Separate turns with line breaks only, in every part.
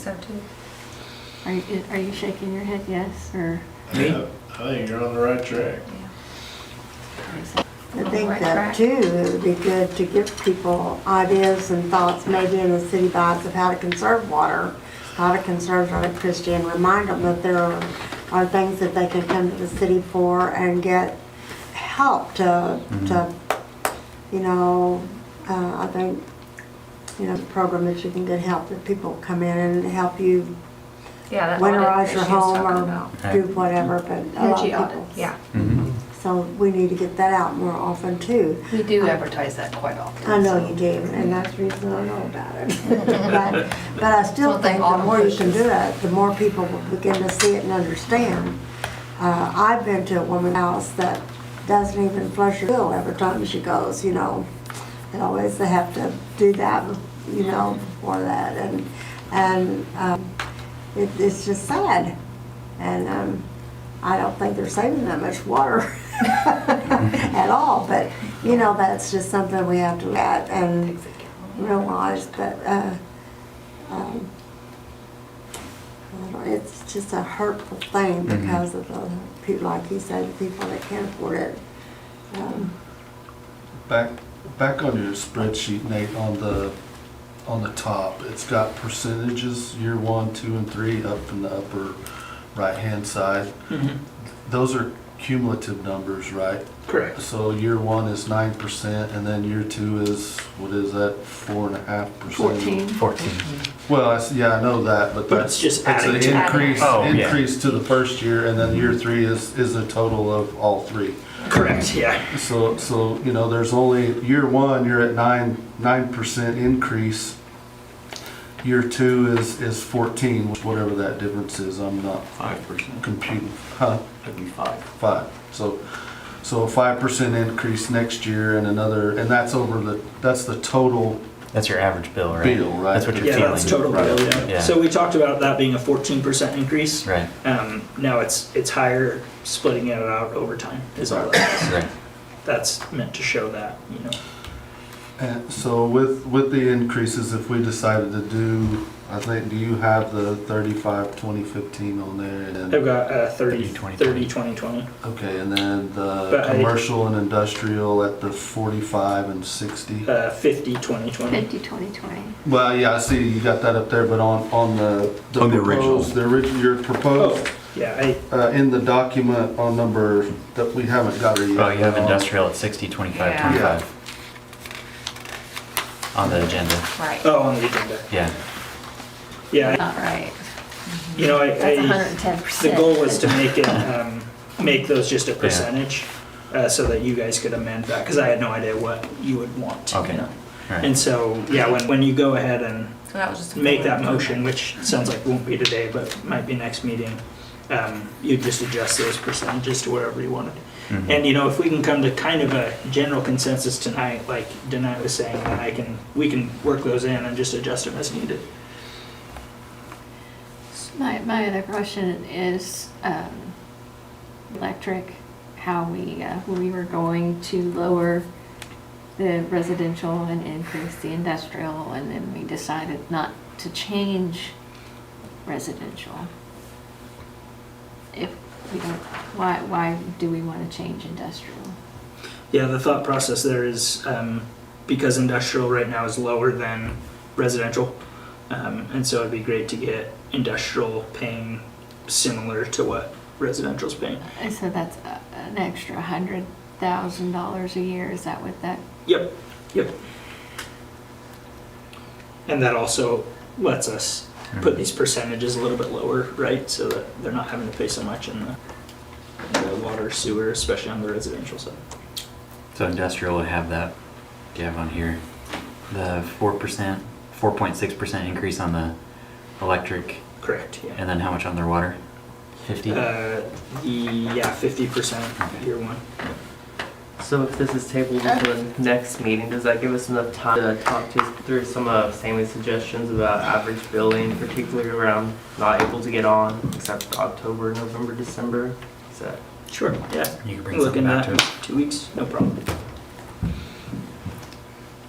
So too.
Are you, are you shaking your head yes, or?
Me?
Yeah, I think you're on the right track.
Yeah.
I think that too, it would be good to give people ideas and thoughts, maybe in the city bites of how to conserve water, how to conserve electricity, and remind them that there are, are things that they can come to the city for and get help to, to, you know, uh, I think, you know, the program that you can get help, that people come in and help you
Yeah, that audit that
winterize
she
your
was
home
talking about.
or do whatever, but a lot
Energy
of people.
audits.
Yeah,
Mm-hmm.
So we need to get that out more often too. Um,
We do advertise that quite often.
I know
so-
you do, and that's the reason I know about it. But, but I still
Well, they
think the
auto
more you can
pushes.
do it, the more people will begin to see it and understand. Uh, I've been to a woman's house that doesn't even flush her bill every time she goes, you know. They always have to do that, you know, before that, and, and, um, it, it's just sad. And, um, I don't think they're saving that much water at all, but, you know, that's just something we have to look at and realize that, uh, um, I don't know, it's just a hurtful thing because of the, people, like you said, the people that can't afford it. Um,
Back, back on your spreadsheet, Nate, on the, on the top, it's got percentages, year one, two, and three, up in the upper right-hand side.
Mm-hmm.
Those are cumulative numbers, right?
Correct.
So year one is nine percent, and then year two is, what is that, four and a half percent?
14.
Well, I s yeah, I know that, but
But
that's.
it's just
that's an
adding Mm-hmm. to-
Increase,
Oh, yeah.
increase to the first year, and then year three is, is a total of all three.
Correct, yeah.
So, so, you know, there's only, year one, you're at nine, nine percent increase. Year two is, is fourteen, which whatever that difference is, I'm not
Five percent,
computing, huh,
that'd be five.
five. So, so a five percent increase next year and another, and that's over the, that's the total
That's your average bill, right?
bill, right?
That's what you're
Yeah,
feeling.
that's total bill, yeah.
Yeah.
So we talked about that being a fourteen percent increase.
Right,
Um, now it's, it's higher, splitting it out over time is all that.
right.
That's meant to show that, you know.
And so with, with the increases, if we decided to do, I think, do you have the thirty-five, twenty, fifteen on there? and then-
I've got, uh, thirty,
30, 20,
thirty, twenty, twenty.
Okay, and then the
But I-
commercial and industrial at the forty-five and sixty?
Uh, fifty, twenty, twenty.
Fifty, twenty, twenty.
Well, yeah, I see you got that up there, but on, on the.
On the original.
proposed- The original, your
Oh,
proposed,
yeah, I,
uh, in the document on number, that we haven't got it yet. Uh,
Oh, you have
on-
industrial at 60, 25,
Yeah.
25. On the agenda,
Right.
oh, on the agenda.
yeah.
Yeah,
Not right.
I- you know, I,
That's
I-
hundred and ten percent.
The goal was to make it, um, make those just a percentage, uh, so that you guys could amend that, because I had no idea what you would want, you
Okay.
know?
All right.
And so, yeah, when, when you go ahead and
so that was just. a
make that
forward.
motion, which sounds like won't be today, but might be next meeting, um, you just adjust those percentages to wherever you wanted.
Mhm.
And, you know, if we can come to kind of a general consensus tonight, like Danette was saying, then I can, we can work those in and just adjust them as needed.
My, my other question is, um, electric, how we, uh, we were going to lower the residential and increase the industrial, and then we decided not to change residential. If we don't, why, why do we want to change industrial?
Yeah, the thought process there is um, because industrial right now is lower than residential, um, and so it'd be great to get industrial paying similar to what residential's paying.
And so that's a- an extra hundred thousand dollars a year, is that what that,
Yep, yep. And that also lets us put these percentages a little bit lower, right? So that they're not having to pay so much in the, the water, sewer, especially on the residential side.
So industrial would have that, you have on here, the 4%, 4.6% increase on the electric,
Correct. Yeah.
and then how much on their water? 50?
Uh, the, yeah, fifty percent year one.
So if this is tabled until the next meeting, does that give us enough time to talk to, through some of Sammy's suggestions about average billing, particularly around not able to get on except for October, November, December? Is that
Sure. Yeah.
You can bring something
Looking
back
at
to us.
two weeks, no problem.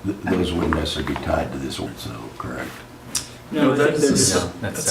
Th- Those wouldn't necessarily be tied to this one, so, correct?
No,
No,
that-
it's-
that's,
No, that's
that's